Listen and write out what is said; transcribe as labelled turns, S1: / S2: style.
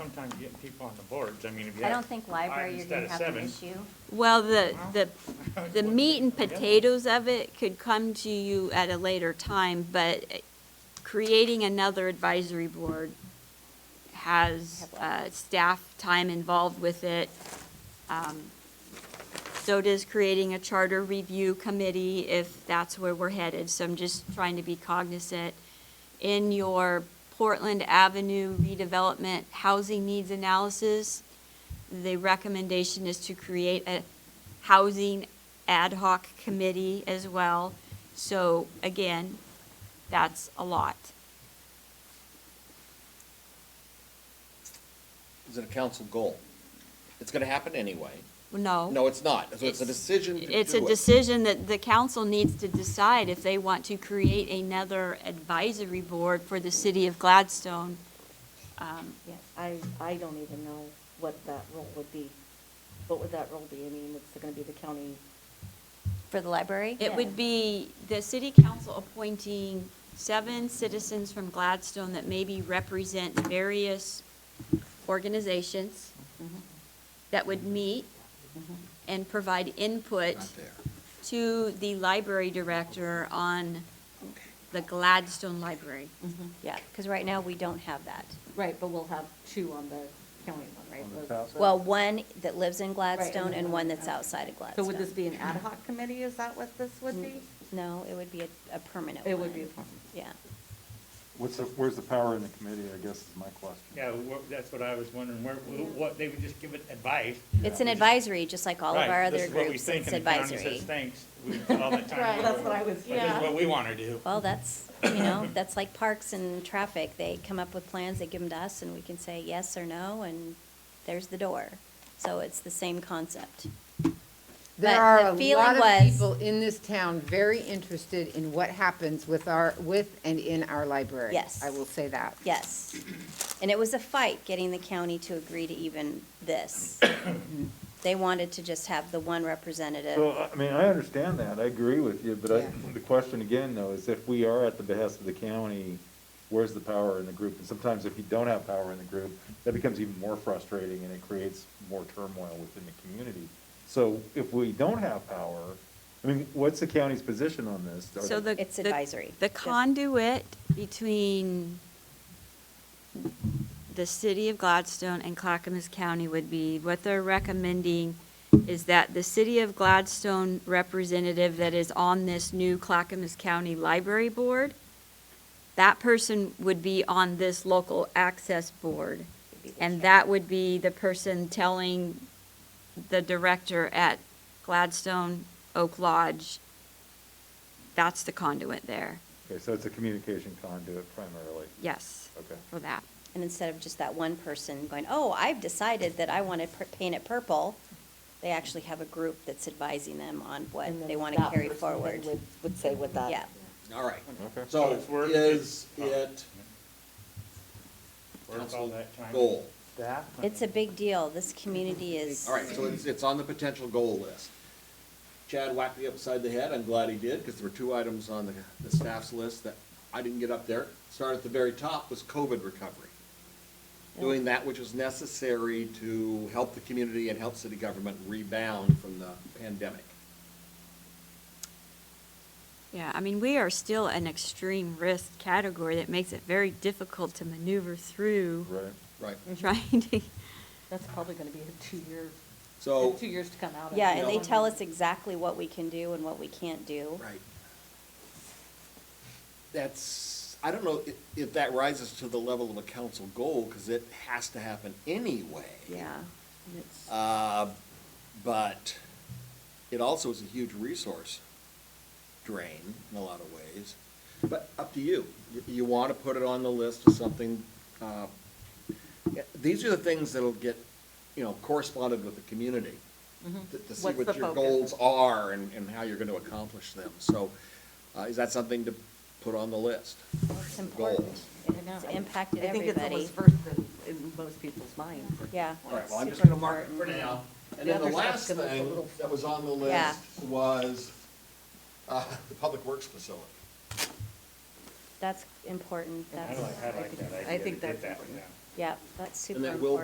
S1: sometimes getting people on the boards, I mean, if you
S2: I
S1: have
S2: don't think library,
S1: five
S2: you're gonna
S1: instead of
S2: have an
S1: seven.
S2: issue.
S3: Well, the, the, the meat and potatoes of it could come to you at a later time, but creating another advisory board has, uh, staff time involved with it. Um, So does creating a charter review committee if that's where we're headed, so I'm just trying to be cognizant. In your Portland Avenue redevelopment housing needs analysis, the recommendation is to create a housing ad hoc committee as well. So again, that's a lot.
S4: Is it a council goal? It's gonna happen anyway.
S3: No.
S4: No, it's not. So it's a
S3: It's-
S4: decision to do
S3: Oh. It's a
S4: it.
S3: decision that the council needs to decide if they want to create another advisory board for the city of Gladstone. Um,
S5: Yeah, I, I don't even know what that role would be. What would that role be? I mean, it's gonna be the county,
S2: For the library?
S3: It would be the city council appointing seven citizens from Gladstone that maybe represent various organizations that would meet and provide input to the library director on the Gladstone Library.
S2: Yeah, because right now, we don't have that.
S5: right, but we'll have two on the county one, right? Was-
S2: Well, one that lives in Gladstone
S5: Right, and
S2: and one
S5: one-
S2: that's outside of
S5: So
S2: Gladstone.
S5: would this be an ad hoc committee? Is that what this would be?
S2: No, it would be a, a permanent one.
S5: It would be a permanent.
S2: Yeah.
S6: What's the, where's the power in the committee, I guess is my question.
S1: Yeah, wha- that's what I was wondering, where, wh- what, they would just give it advice.
S2: It's an advisory, just like all of
S1: Right,
S2: our
S1: this
S2: other
S1: is what we
S2: groups,
S1: think,
S2: it's
S1: and the county
S2: advisory.
S1: says, Thanks, we, do it all the time.
S5: Right. That's what I was-
S1: But This
S5: yeah.
S1: is what we wanna do.
S2: Well, that's, you know, that's like parks and traffic. They come up with plans, they give them to us, and we can say yes or no, and there's the door. So it's the same concept.
S7: There
S2: But
S7: are
S2: the
S7: a
S2: feeling
S7: lot of
S2: was-
S7: people in this town very interested in what happens with our, with and in our library.
S2: Yes.
S7: I will say that.
S2: Yes. And it was a fight getting the county to agree to even this. They wanted to just have the one
S6: So,
S2: representative.
S4: uh,
S6: I- I mean, I understand that, I agree with you, but I,
S7: Yeah.
S6: the question again, though, is if we are at the behest of the county, where's the power in the group? And sometimes if you don't have power in the group, that becomes even more frustrating and it creates more turmoil within the community. So if we don't have power, I mean, what's the county's position on this? Are
S3: So
S6: they-
S3: the.
S2: It's
S3: the-
S2: advisory.
S3: The conduit between the city of Gladstone and Clackamas County would be, what they're recommending is that the city of Gladstone representative that is on this new Clackamas County Library Board, that person would be on this local access board. And that would be the person telling the director at Gladstone Oak Lodge, that's the conduit there,
S6: Okay, so it's a communication conduit primarily,
S3: yes,
S6: okay.
S3: for that.
S2: And instead of just that one person going, oh, I've decided that I want to pur- paint it purple, they actually have a group that's advising them on what
S5: And then
S2: they want to
S5: that
S2: carry
S5: person then
S2: forward.
S5: would- Would say what that.
S2: Yeah.
S4: All right.
S6: Okay.
S1: So
S4: So
S1: it's worth-
S4: is
S1: it's-
S4: it
S1: Worth all that time.
S4: goal?
S2: It's a big deal. This community is.
S4: All right, so it's, it's on the potential goal list. Chad whacked me upside the head. I'm glad he did, because there were two items on the, the staff's list that I didn't get up there. Started at the very top was COVID recovery. Doing that which is necessary to help the community and help city government rebound from the pandemic.
S3: Yeah, I mean, we are still an extreme risk category that makes it very difficult to maneuver through,
S6: Right.
S4: Right.
S3: trying to,
S5: That's probably gonna be a two-year,
S4: So,
S5: two years to come out of.
S2: Yeah, and they tell us exactly what we can do and what we can't do.
S4: right. That's, I don't know if, if that rises to the level of a council goal, because it has to happen anyway.
S2: Yeah.
S4: Uh, But it also is a huge resource drain in a lot of ways. But up to you. You, you want to put it on the list as something, uh, yeah, these are the things that'll get, you know, corresponded with the community. To to see
S5: Mm-hmm. What's
S4: what
S5: the
S4: your
S5: focus?
S4: goals are and, and how you're going to accomplish them. So uh, is that something to put on the list?
S2: It's
S4: The goal.
S2: important. It's impacted
S5: I think it's
S2: everybody.
S5: almost first in- in most people's minds.
S2: Yeah.
S4: All right, well, I'm just
S2: Super
S4: gonna mark it for
S2: important.
S4: now. And
S5: Mm-hmm. The
S4: then the
S5: other
S4: last
S5: stuff's gonna look a
S4: thing
S5: little-
S4: that was on the
S2: Yeah.
S4: list was, uh, the public works facility.
S2: That's important.
S1: I
S2: That's,
S1: like, I like that idea.
S5: I think
S1: to get
S5: that's
S1: that one down.
S2: Yep, that's super
S4: And that
S2: important.
S4: will